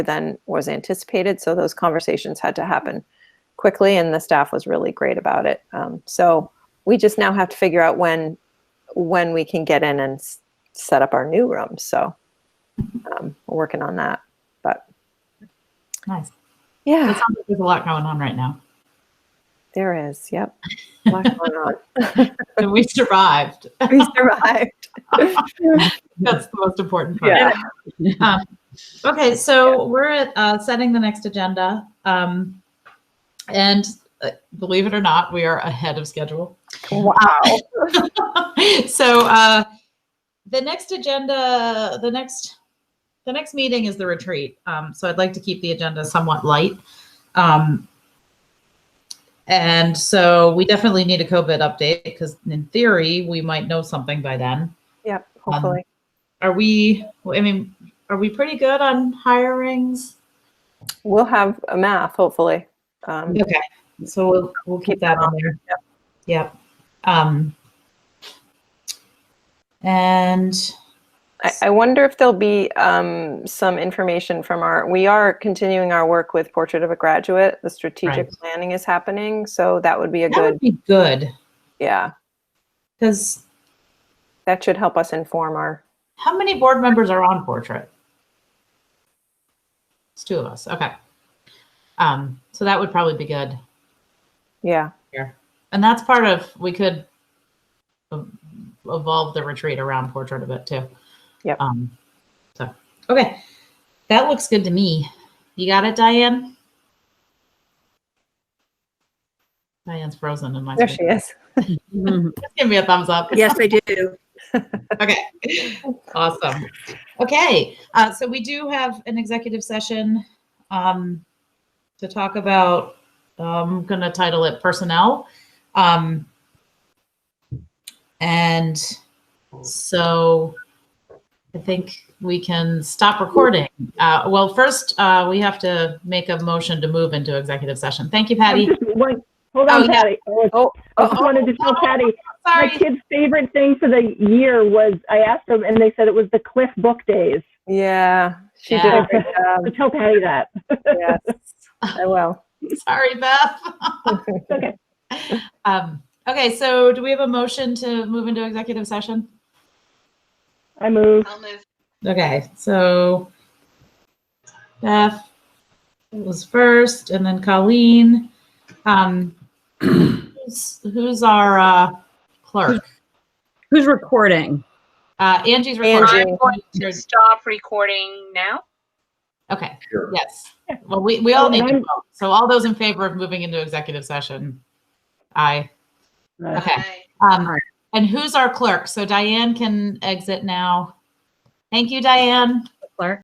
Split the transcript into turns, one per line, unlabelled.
than was anticipated. So those conversations had to happen quickly, and the staff was really great about it. Um, so we just now have to figure out when when we can get in and s- set up our new room. So um, we're working on that. But
Nice. It
yeah,
sounds like there's a lot going on right now.
there is. Yep. A lot going on.
And we survived.
We survived.
That's the most important part.
Yeah.
Um, okay, so we're at uh, setting the next agenda. Um, and uh, believe it or not, we are ahead of schedule.
Wow.
so uh, the next agenda, the next, the next meeting is the retreat. Um, so I'd like to keep the agenda somewhat light. Um, and so we definitely need a COVID update because in theory we might know something by then.
Yep. Hopefully.
Are we? I mean, are we pretty good on hirings?
We'll have a math, hopefully. Um,
Okay, so we'll, we'll keep that on there. Yep. Um, and
I, I wonder if there'll be um, some information from our, we are continuing our work with Portrait of a Graduate. The strategic
Right.
planning is happening. So that would be a
that
good,
would be good
yeah,
because
that should help us inform our,
how many board members are on portrait? It's two of us. Okay. Um, so that would probably be good.
yeah,
And that's part of we could ev- evolve the retreat around portrait a bit too.
Yep.
Um, so okay, that looks good to me. You got it, Diane. Diane's frozen in my.
there she
screen.
is.
Just give me a thumbs up.
Yes, I do.
Okay. Awesome. Okay. Uh, so we do have an executive session um, to talk about, I'm going to title it personnel. Um, and so I think we can stop recording. Uh, well, first, uh, we have to make a motion to move into executive session. Thank you, Patty.
Just one- Hold
Oh,
on,
yeah.
Patty. I was-
Oh,
I just wanted to tell Patty, my
Sorry.
kid's favorite thing for the year was, I asked them and they said it was the Cliff Book Days.
Yeah, she
Yeah.
did a great job.
So tell Patty that.
Yes, I will.
Sorry, Beth.
Okay.
Um, okay, so do we have a motion to move into executive session?
I move.
I'll move.
Okay, so Beth was first and then Colleen. Um, who's, who's our uh, clerk?
Who's recording?
Uh, Angie's
Angie.
recording.
I'm going to stop recording now.
Okay, yes. Well, we,
Oh,
we all need to vote. So all those in favor of moving into executive session? Aye.
Uh,
Okay.
Bye.
Um, and who's our clerk? So Diane can exit now. Thank you, Diane.
Clerk?